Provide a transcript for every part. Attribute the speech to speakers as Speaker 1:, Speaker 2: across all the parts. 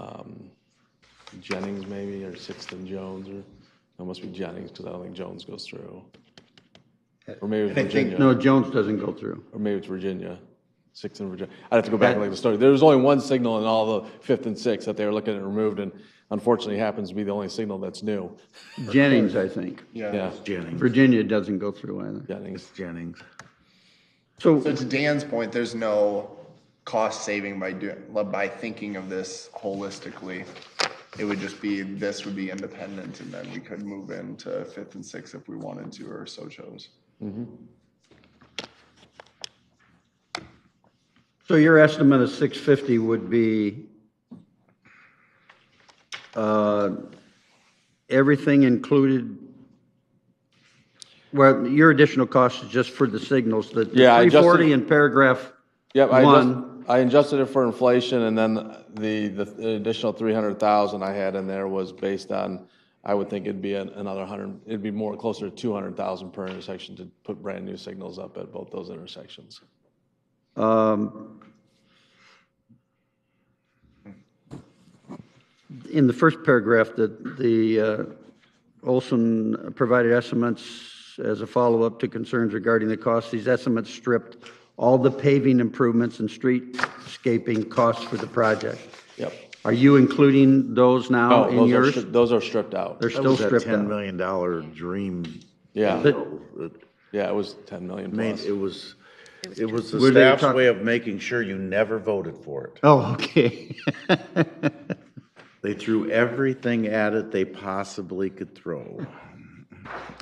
Speaker 1: Um, Jennings maybe, or Sixth and Jones, or, no, it must be Jennings, because I don't think Jones goes through. Or maybe it's
Speaker 2: I think,
Speaker 1: Virginia,
Speaker 2: no, Jones doesn't go through.
Speaker 1: or maybe it's Virginia, Sixth and Virginia. I'd have to go back and look at the story. There was only one signal in all the Fifth and Sixth that they were looking at removed, and unfortunately happens to be the only signal that's new.
Speaker 2: Jennings, I think.
Speaker 1: Yeah,
Speaker 3: Jennings.
Speaker 2: Virginia doesn't go through either.
Speaker 1: Jennings.
Speaker 3: Jennings.
Speaker 4: So
Speaker 2: So,
Speaker 4: to Dan's point, there's no cost saving by doing, by thinking of this holistically. It would just be, this would be independent and then we could move into fifth and sixth if we wanted to or so chose.
Speaker 2: so your estimate of 650 would be uh, everything included? Well, your additional cost is just for the signals, the the
Speaker 1: Yeah, I adjusted-
Speaker 2: 340 in paragraph
Speaker 1: Yep, I adjust-
Speaker 2: one.
Speaker 1: I adjusted it for inflation, and then the, the additional three hundred thousand I had in there was based on, I would think it'd be an- another hundred, it'd be more closer to two hundred thousand per intersection to put brand-new signals up at both those intersections.
Speaker 2: Um, In the first paragraph, that the uh, Olson provided estimates as a follow-up to concerns regarding the cost. These estimates stripped all the paving improvements and streetscaping costs for the project.
Speaker 1: Yep.
Speaker 2: Are you including those now
Speaker 1: Oh,
Speaker 2: in
Speaker 1: those are,
Speaker 2: yours?
Speaker 1: stri- those are stripped out.
Speaker 2: They're
Speaker 3: That
Speaker 2: still
Speaker 3: was that
Speaker 2: stripped
Speaker 3: ten
Speaker 2: out.
Speaker 3: million dollar dream.
Speaker 1: Yeah,
Speaker 2: But-
Speaker 3: It
Speaker 1: yeah, it was ten million
Speaker 3: made-
Speaker 1: plus.
Speaker 3: it was, it was the
Speaker 2: Were they
Speaker 3: staff's
Speaker 2: talk-
Speaker 3: way of making sure you never voted for it.
Speaker 2: Oh, okay.
Speaker 3: They threw everything at it they possibly could throw.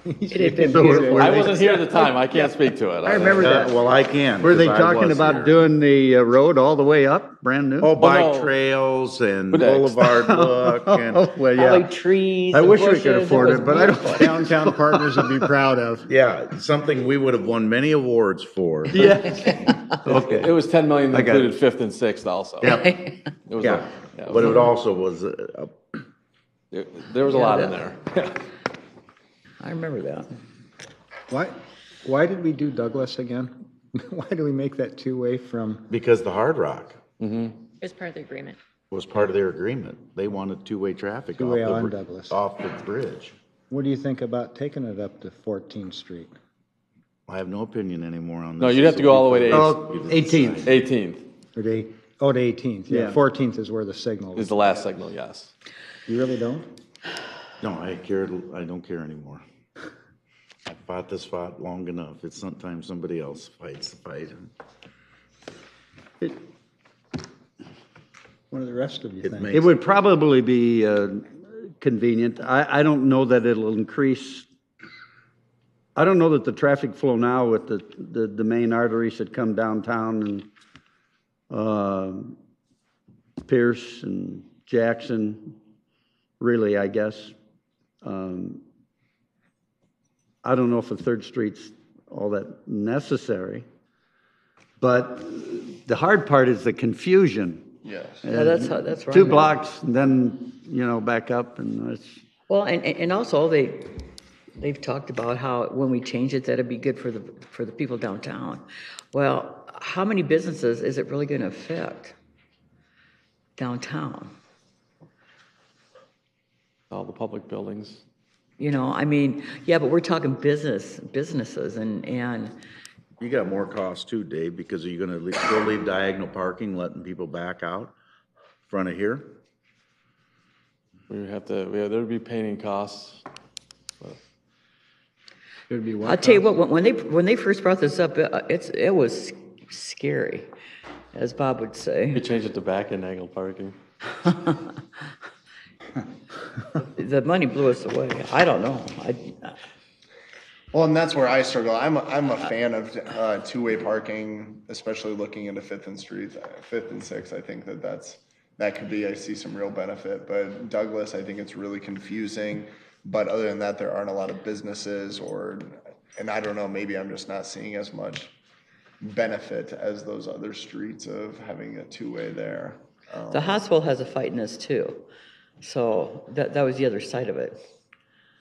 Speaker 5: It had been
Speaker 2: So we're-
Speaker 5: period.
Speaker 2: we're-
Speaker 1: I wasn't here at the time, I can't speak to it. I
Speaker 5: remember
Speaker 3: Uh,
Speaker 5: that.
Speaker 3: Well, I can.
Speaker 2: Were they
Speaker 3: 'cause I
Speaker 2: talking
Speaker 3: was
Speaker 2: about
Speaker 3: here.
Speaker 2: doing the uh, road all the way up, brand new?
Speaker 3: Oh, bike
Speaker 1: no.
Speaker 3: trails and
Speaker 1: But next.
Speaker 3: boulevard look and,
Speaker 2: well,
Speaker 5: Holly trees.
Speaker 2: I
Speaker 5: and
Speaker 2: wish we
Speaker 5: bushes.
Speaker 2: could afford
Speaker 5: was
Speaker 2: it, but I don't.
Speaker 5: beautiful.
Speaker 6: Downtown partners would be proud of.
Speaker 3: yeah, something we would have won many awards for.
Speaker 2: Yeah.
Speaker 1: It
Speaker 2: Okay.
Speaker 1: was ten million that
Speaker 2: got it.
Speaker 1: included Fifth and Sixth also.
Speaker 3: Yeah,
Speaker 1: It was a-
Speaker 3: yeah.
Speaker 1: yeah, it
Speaker 3: But
Speaker 1: was
Speaker 3: it also was, uh,
Speaker 1: a- there- There was a lot in there.
Speaker 5: I remember that.
Speaker 6: Why, why did we do Douglas again? Why do we make that two-way from,
Speaker 3: because the Hard Rock
Speaker 7: It's part of the agreement.
Speaker 3: was part of their agreement. They wanted two-way traffic off
Speaker 6: Two-way
Speaker 3: the,
Speaker 6: on
Speaker 3: br-
Speaker 6: Douglas.
Speaker 3: off the bridge.
Speaker 6: what do you think about taking it up to 14th Street?
Speaker 3: I have no opinion anymore on this.
Speaker 1: No, you'd have to go all the way to
Speaker 2: Oh, 18th.
Speaker 1: eighteenth
Speaker 6: Or to, eight- oh, to 18th, yeah,
Speaker 2: Yeah.
Speaker 6: 14th is where the signal
Speaker 1: is
Speaker 6: is.
Speaker 1: the last signal, yes.
Speaker 6: You really don't?
Speaker 3: No, I cared, I don't care anymore. I fought this fight long enough. It's sometimes somebody else fights the fight.
Speaker 6: What do the rest of you
Speaker 3: It
Speaker 6: think?
Speaker 3: makes
Speaker 2: It would probably be uh, convenient. I, I don't know that it'll increase. I don't know that the traffic flow now with the, the, the main arteries that come downtown and um, Pierce and Jackson, really, I guess. Um, I don't know if a third street's all that necessary. But the hard part is the confusion.
Speaker 4: Yes.
Speaker 5: No, that's how, that's right.
Speaker 2: Two blocks, and then, you know, back up, and it's,
Speaker 5: Well, and, and and also they, they've talked about how when we change it, that'd be good for the, for the people downtown. Well, how many businesses is it really going to affect downtown?
Speaker 1: All the public buildings.
Speaker 5: You know, I mean, yeah, but we're talking business, businesses and, and,
Speaker 3: You got more cost too, Dave, because are you gonna le- still leave diagonal parking, letting people back out front of here?
Speaker 1: We would have to, yeah, there'd be painting costs.
Speaker 6: It'd be
Speaker 5: I'll
Speaker 6: what?
Speaker 5: tell you what, when- when they, when they first brought this up, uh, it's, it was scary, as Bob would say.
Speaker 1: We change it to back end angle parking.
Speaker 5: The money blew us away. I don't know. I,
Speaker 4: Well, and that's where I struggle. I'm a, I'm a fan of uh, two-way parking, especially looking into Fifth and Street, Fifth and Sixth. I think that that's that could be. I see some real benefit, but Douglas, I think it's really confusing. But other than that, there aren't a lot of businesses, or and I don't know. Maybe I'm just not seeing as much benefit as those other streets of having a two-way there. Um,
Speaker 5: The hospital has a fight in this too. So that, that was the other side of it,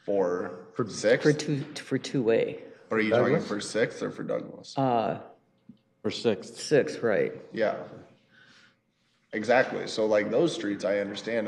Speaker 4: for for six,
Speaker 5: for two, for two-way.
Speaker 4: or are you talking for six or for Douglas?
Speaker 5: Uh,
Speaker 1: For Sixth.
Speaker 5: six, right.
Speaker 4: yeah, exactly. So like those streets, I understand